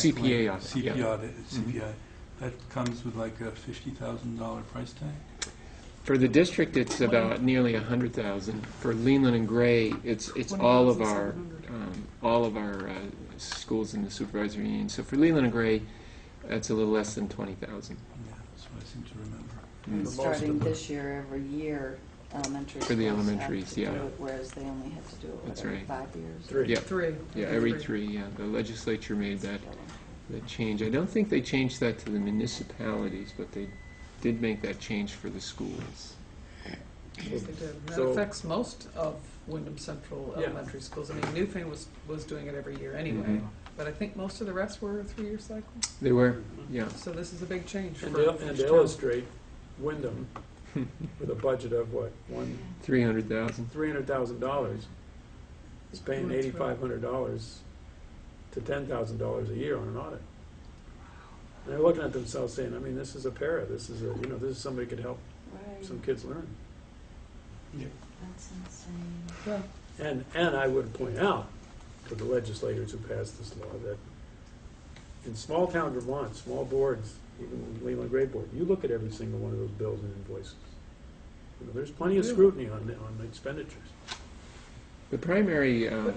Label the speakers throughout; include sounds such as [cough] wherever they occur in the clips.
Speaker 1: CPA audit,
Speaker 2: CPA
Speaker 1: yeah.
Speaker 2: audit, CPI. That comes with like a $50,000 price tag?
Speaker 1: For the district, it's about nearly a hundred thousand. For Leland and Gray, it's, it's all of our, um, all of our uh, schools in the supervisory union. So for Leland and Gray, that's a little less than twenty thousand.
Speaker 2: Yeah, that's what I seem to remember.
Speaker 3: And
Speaker 4: most
Speaker 3: Starting
Speaker 4: of them.
Speaker 3: this year, every year, elementary schools.
Speaker 1: Mm. For the
Speaker 3: have to
Speaker 1: elementaries,
Speaker 3: do
Speaker 1: yeah.
Speaker 3: it, Whereas they only have to do it, what,
Speaker 1: That's
Speaker 3: every
Speaker 1: right.
Speaker 3: five years?
Speaker 4: Three.
Speaker 1: Yeah,
Speaker 5: Three.
Speaker 1: yeah, every three, yeah. The legislature made that, that change. I don't think they changed that to the municipalities, but they did make that change for the schools.
Speaker 5: Yes, they did. And That
Speaker 4: So-
Speaker 5: affects most of Wyndham Central
Speaker 2: Yeah.
Speaker 5: elementary schools. I mean, Newfane was, was doing it every year anyway,
Speaker 1: Mhm.
Speaker 5: but I think most of the rest were a three-year cycle.
Speaker 1: They were, yeah.
Speaker 5: So this is a big change for
Speaker 4: And to
Speaker 5: for
Speaker 4: and
Speaker 5: each
Speaker 4: to
Speaker 5: town.
Speaker 4: illustrate, Wyndham, with a budget of what, one,
Speaker 1: Three hundred thousand.
Speaker 4: three hundred thousand dollars, is paying
Speaker 5: Going through.
Speaker 4: eighty-five hundred dollars to ten thousand dollars a year on an audit. And they're looking at themselves saying, I mean, this is a para, this is a, you know, this is somebody could help
Speaker 3: Right,
Speaker 4: some kids learn.
Speaker 3: that's insane.
Speaker 5: Yeah.
Speaker 4: And, and I would point out to the legislators who passed this law that in small town Vermont, small boards, even Leland Gray Board, you look at every single one of those bills and invoices. You know, There's plenty of scrutiny on, the- on the expenditures.
Speaker 1: The primary um,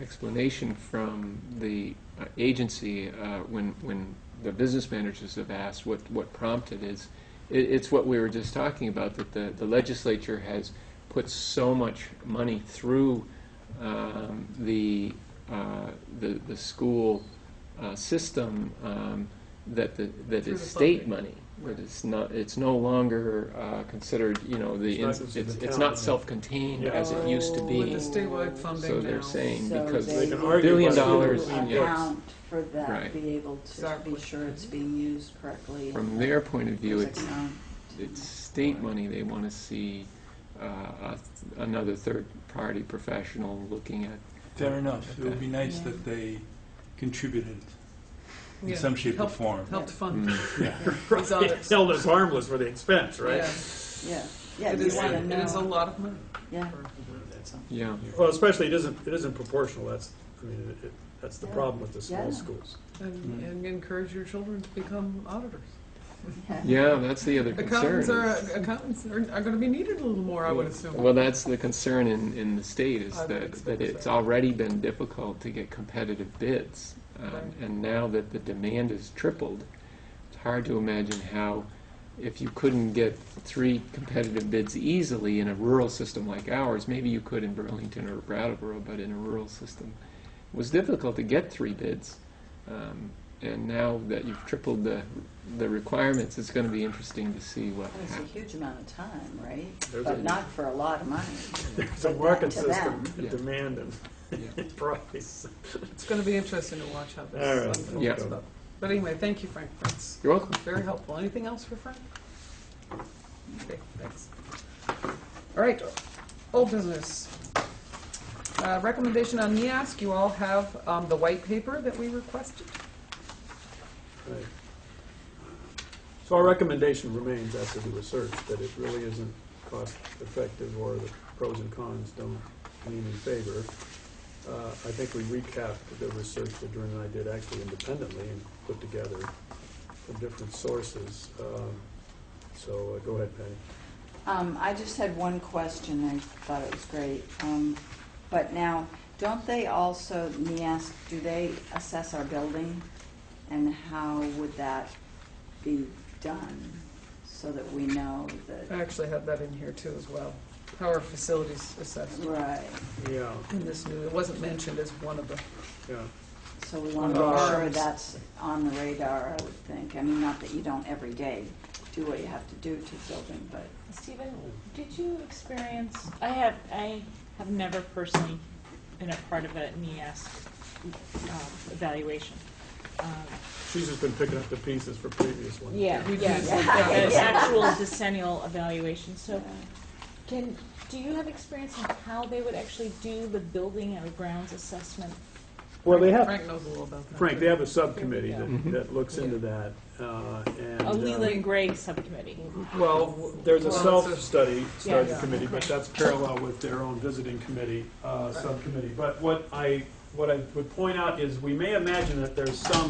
Speaker 1: explanation from the uh, agency, uh, when, when the business managers have asked what, what prompted is, it, it's what we were just talking about, that the, the legislature has put so much money through um, the, uh, the, the school uh, system um, that the, that
Speaker 5: Through
Speaker 1: is
Speaker 5: the
Speaker 1: state
Speaker 5: funding.
Speaker 1: money. That it's not, it's no longer uh, considered, you know, the, it's,
Speaker 4: It's not considered
Speaker 1: it's it's
Speaker 4: town
Speaker 1: not
Speaker 4: money.
Speaker 1: self-contained
Speaker 4: Yeah.
Speaker 1: as it used to be.
Speaker 5: With the statewide funding
Speaker 1: So
Speaker 5: now.
Speaker 1: they're saying
Speaker 3: So
Speaker 1: because
Speaker 4: They
Speaker 3: they
Speaker 4: can
Speaker 3: would
Speaker 4: argue
Speaker 1: Billion
Speaker 4: about who
Speaker 1: dollars,
Speaker 4: really
Speaker 1: yeah.
Speaker 4: works.
Speaker 3: Account for
Speaker 1: Right.
Speaker 3: that, be able to
Speaker 5: Exactly.
Speaker 3: be sure it's being used correctly.
Speaker 1: from
Speaker 3: and
Speaker 1: their point of view,
Speaker 3: there's
Speaker 1: it's,
Speaker 3: account.
Speaker 1: it's state money. They want to see uh, a- another third-party professional looking at.
Speaker 2: Fair enough. It would be nice
Speaker 3: Yeah.
Speaker 2: that they contributed in
Speaker 5: Yeah.
Speaker 2: some shape or
Speaker 5: Helped-
Speaker 2: form.
Speaker 5: Helped fund.
Speaker 1: Mm.
Speaker 2: Yeah.
Speaker 5: These
Speaker 4: [laughs]
Speaker 5: audits.
Speaker 4: Held us harmless for the expense, right?
Speaker 5: Yeah.
Speaker 3: Yeah, yeah,
Speaker 5: It
Speaker 3: you
Speaker 5: is,
Speaker 3: want to
Speaker 5: it is a
Speaker 3: know,
Speaker 5: lot of money.
Speaker 3: yeah.
Speaker 1: Yeah,
Speaker 4: Well, especially it isn't, it isn't proportional, that's, I mean, it- it, that's the
Speaker 3: Yeah.
Speaker 4: problem with the small
Speaker 3: Yeah.
Speaker 4: schools. Mm-hmm.
Speaker 5: And,
Speaker 2: Mm.
Speaker 5: and encourage your children to become auditors.
Speaker 1: yeah, that's the other concern.
Speaker 5: Accountants are,
Speaker 1: is-
Speaker 5: accountants are, are gonna be needed a little more, I would assume.
Speaker 1: Well, that's the concern in, in the state is
Speaker 5: I would
Speaker 1: that, that
Speaker 5: expect
Speaker 1: it's
Speaker 5: so.
Speaker 1: already been difficult to get competitive bids.
Speaker 5: Right.
Speaker 1: Um, and now that the demand is tripled, it's hard to imagine how, if you couldn't get three competitive bids easily in a rural system like ours, maybe you could in Burlington or Brattleboro, but in a rural system, it was difficult to get three bids. Um, and now that you've tripled the, the requirements, it's going to be interesting to see what
Speaker 3: It was a
Speaker 1: happens.
Speaker 3: huge amount of time, right?
Speaker 4: There's
Speaker 3: But
Speaker 4: a-
Speaker 3: not for a lot of money.
Speaker 4: It's a
Speaker 3: But
Speaker 4: market
Speaker 3: to them.
Speaker 4: system,
Speaker 1: Yeah.
Speaker 4: demand [laughs] and price.
Speaker 5: It's gonna be interesting to watch how
Speaker 4: All
Speaker 5: this
Speaker 4: right.
Speaker 5: unfolds.
Speaker 1: Yeah.
Speaker 5: but- But anyway, thank you, Frank. That's
Speaker 1: You're welcome.
Speaker 5: Very helpful. Anything else for Frank? Okay, thanks. All right, old business. Uh, Recommendation on NIASC, you all have um, the white paper that we requested.
Speaker 4: Right. So our recommendation remains after the research that it really isn't cost effective or the pros and cons don't lean in favor. Uh, I think we recapped the research that Doreen and I did actually independently and put together from different sources. Um, So uh, go ahead, Patty.
Speaker 3: Um, I just had one question, I thought it was great. Um, but now, don't they also, NIASC, do they assess our building? And how would that be done so that we know
Speaker 5: I
Speaker 3: that,
Speaker 5: actually have that in here too as well. How are facilities assessed
Speaker 3: right?
Speaker 4: Yeah,
Speaker 5: in this new, it wasn't mentioned as one of the,
Speaker 4: yeah.
Speaker 3: So we want to
Speaker 4: On
Speaker 3: make
Speaker 4: our-
Speaker 3: sure that's on the radar, I would think. I mean, not that you don't every day do what you have to do to the building, but
Speaker 6: Stephen, did you experience, I have, I have never personally been a part of a NEAS um, evaluation. Um,
Speaker 4: She's just been picking up the pieces for previous ones.
Speaker 6: Yeah,
Speaker 5: We
Speaker 6: yeah,
Speaker 5: did.
Speaker 6: yeah, [laughs]
Speaker 5: Yeah.
Speaker 6: an actual decennial evaluation, so
Speaker 3: uh,
Speaker 6: can, do you have experience in how they would actually do the building or grounds assessment?
Speaker 4: Well, they have,
Speaker 5: Frank knows a little about that.
Speaker 4: Frank,
Speaker 5: too.
Speaker 4: they have a subcommittee that,
Speaker 1: Mhm.
Speaker 4: that looks into that, uh, and.
Speaker 6: A
Speaker 4: uh,
Speaker 6: Leland Gray subcommittee?
Speaker 4: Well, there's a
Speaker 5: Well, it's a-
Speaker 4: self-study, study
Speaker 6: Yeah.
Speaker 4: committee, but that's parallel with their own visiting committee, uh, subcommittee. But what I, what I would point out is, we may imagine that there's some